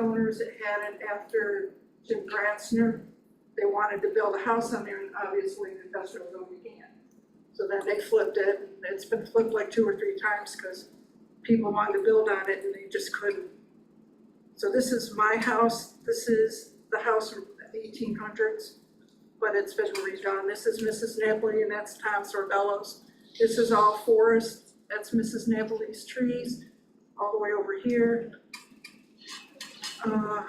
neighbors that had it after Jim Gratzner, they wanted to build a house on there, and obviously the industrial zone began. So then they flipped it, and it's been flipped like two or three times, cause people wanted to build on it and they just couldn't. So this is my house, this is the house from the eighteen hundreds, but it's been redone, this is Mrs. Napoli and that's Tom Sorbello's. This is all forest, that's Mrs. Napoli's trees, all the way over here. Uh,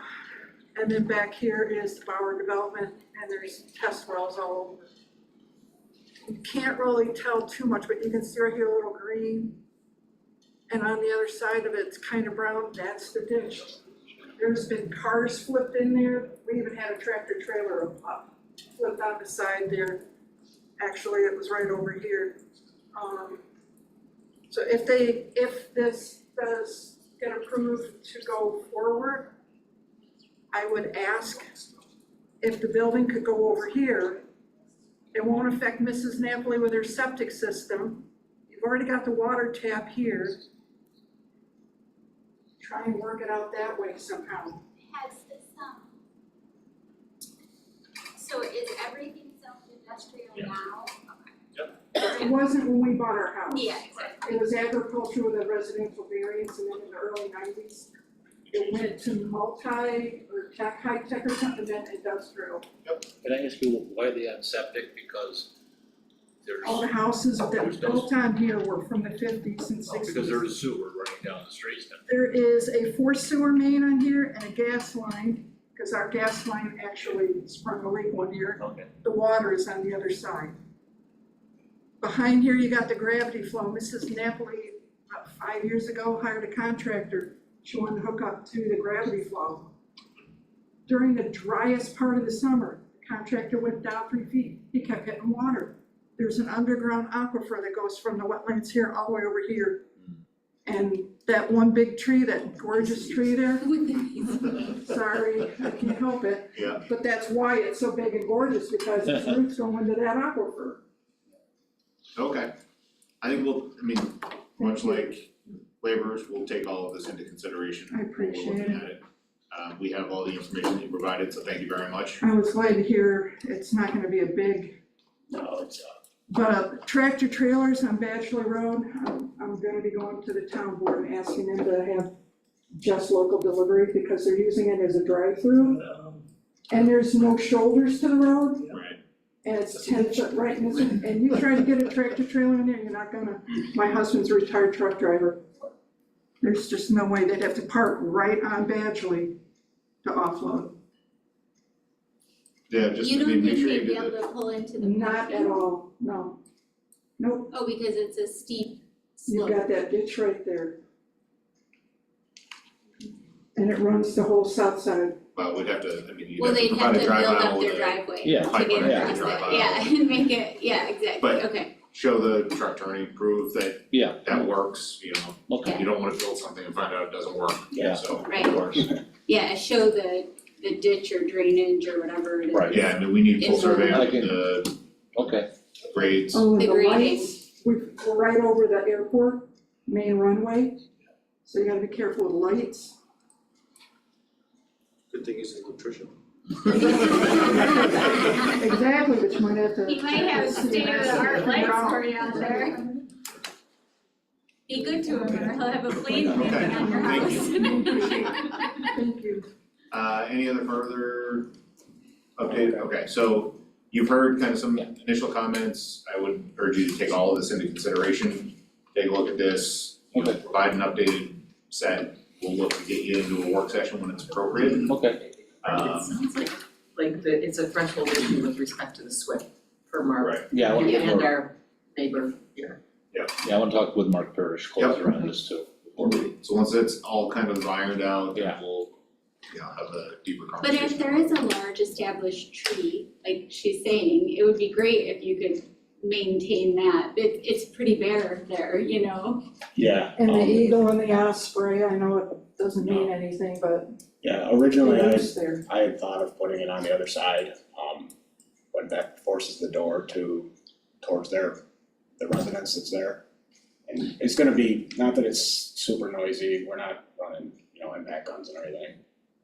and then back here is the Bauer Development, and there's test wells all over. You can't really tell too much, but you can see right here a little green. And on the other side of it's kind of brown, that's the ditch. There's been cars flipped in there, we even had a tractor trailer up, flipped on the side there. Actually, it was right over here. Um, so if they, if this does get approved to go forward, I would ask if the building could go over here. It won't affect Mrs. Napoli with her septic system. You've already got the water tap here. Try and work it out that way somehow. Has this, um, so is everything self-industrial Yeah. now? It wasn't when we bought our house. Yeah, exactly. It was agriculture with a residential variance, and then in the early nineties, it went to multi or tech, high tech or something, then industrial. Can I ask you why they on septic? Because there's, All the houses that were built on here were from the fifties and oh, sixties. because there's a sewer running down the street now. There is a forced sewer main on here and a gas line, because our gas line actually sprung a leak one year. Okay. The water is on the other side. Behind here, you got the gravity flow. Mrs. Napoli, about five years ago, hired a contractor. She wanted to hook up to the gravity flow. During the driest part of the summer, the contractor went down three feet. He kept getting water. There's an underground aquifer that goes from the wetlands here all the way over here. And that one big tree, that gorgeous tree there, sorry, I can't help it. Yeah. But that's why it's so big and gorgeous, because its roots go into that aquifer. Okay, I think we'll, I mean, much like laborers, we'll take all of this into consideration. I when we're appreciate looking at it. Um, we have all the information that you provided, so thank you very much. I was glad to hear it's not gonna be a big, No, it's, uh, but uh, tractor trailers on Bachelor Road, I'm, I'm gonna be going to the town board and asking them to have just local delivery, because they're using it as a drive-through, and there's no shoulders to the road, Right. and it's ten foot right in the, and you try to get a tractor trailer in there, you're not gonna, my husband's a retired truck driver. There's just no way, they'd have to park right on Badgley to offload. Yeah, just to be, make sure you You do don't think they'd be the, able to pull into the. Not at parking? all, no. Nope, Oh, because it's a steep you've slope. got that ditch right there. And it runs the whole south side. well, we'd have to, I mean, you'd Well, have to they'd have provide a to build drive up aisle with their a, driveway Yeah. to Pipe get line, yeah, across drive there, aisle. yeah, and make it, yeah, exactly, But- okay. show the truck attorney, prove that yeah, that works, you know, okay, you don't wanna build something and find out it doesn't work, Yeah. so. of Right. course. Yeah, show the, the ditch or drainage or whatever it is. Right. Yeah, I mean, we need full It's- survey of Like in- the okay. grades, Oh, and The the grading. lights, we- we're right over the airport, main runway, so you gotta be careful with lights. Good thing he's an electrician. Exactly, but you might have to. He might have state-of-the-art lights for you out there. Be good to him, or he'll have a plane landing on your Okay, house. Thank you. Uh, any other further update? Okay, so you've heard kind of some initial comments. I would urge you to take all of this into consideration. Take a look at this, you know, Okay. provide an updated set. We'll look to get you into a work session when it's appropriate. Okay, It Um, sounds like, like the, it's a threshold issue with respect to the SWIFT per Mark. right, yeah, I wanna get And more, our neighbor here. yeah, I wanna talk with Mark Parrish closer on this too. before we- so once it's all kind of ironed out, then Yeah. we'll, you know, have a deeper But conversation. if there is a large established tree, like she's saying, it would be great if you could maintain that. It, it's pretty bare there, you know? Yeah, And the um, eagle and the osprey, I know it doesn't mean anything, but yeah, it originally I, lives there. I had thought of putting it on the other side, um, but that forces the door to, towards their, the residence that's there. And it's gonna be, not that it's super noisy, we're not running, you know, impact guns and everything,